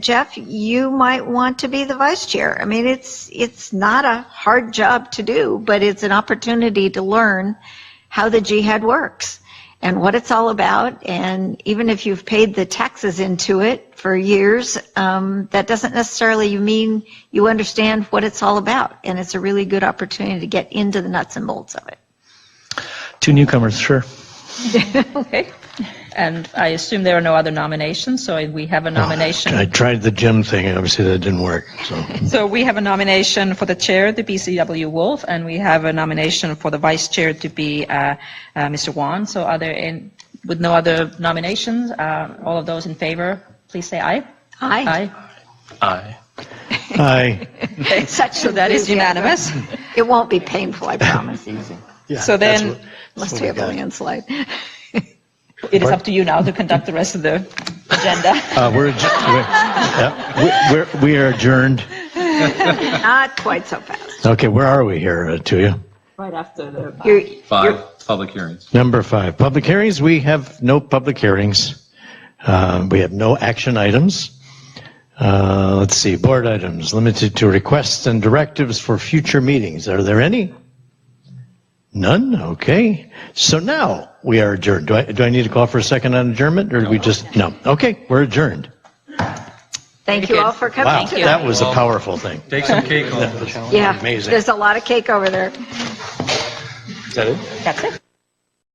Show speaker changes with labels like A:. A: Jeff, you might want to be the vice chair. I mean, it's, it's not a hard job to do, but it's an opportunity to learn how the jihad works and what it's all about. And even if you've paid the taxes into it for years, um, that doesn't necessarily mean you understand what it's all about. And it's a really good opportunity to get into the nuts and bolts of it.
B: Two newcomers, sure.
C: Okay. And I assume there are no other nominations, so we have a
D: I
C: nomination.
D: tried the gym thing, and obviously that didn't work, so.
C: So we have a nomination for the chair to be CW Wolf, and we have a nomination for the vice chair to be uh, uh, Mr. Wan. So are there, any- with no other nominations, uh, all of those in favor, please say aye.
A: Aye.
B: Aye.
D: Aye.
A: Such
C: So that is
A: enthusiasm.
C: unanimous.
A: It won't be painful, I promise,
D: Yeah,
C: So
D: that's
C: then-
D: what-
A: unless
D: what
A: we
D: we
A: have a
D: got.
A: landslide.
C: It is up to you now to conduct the rest of the agenda.
D: Uh, we're, adj- we're- yeah, we- we're, we are adjourned.
A: Not quite so fast.
D: Okay, where are we here, uh, to you?
C: Right after the.
A: You're, you're-
E: Five public hearings.
D: Number five, public hearings. We have no public hearings. Uh, We have no action items. Uh, Let's see, board items, limited to requests and directives for future meetings. Are there any? None? Okay. So now we are adjourned. Do I, do I need to call for a second on adjournment, or do we just, no? Okay, we're adjourned.
A: thank you all for
D: Wow,
A: coming tonight.
D: that was a powerful thing.
E: Take some cake off.
A: Yeah,
D: Amazing.
A: there's a lot of cake over there.
C: That's it.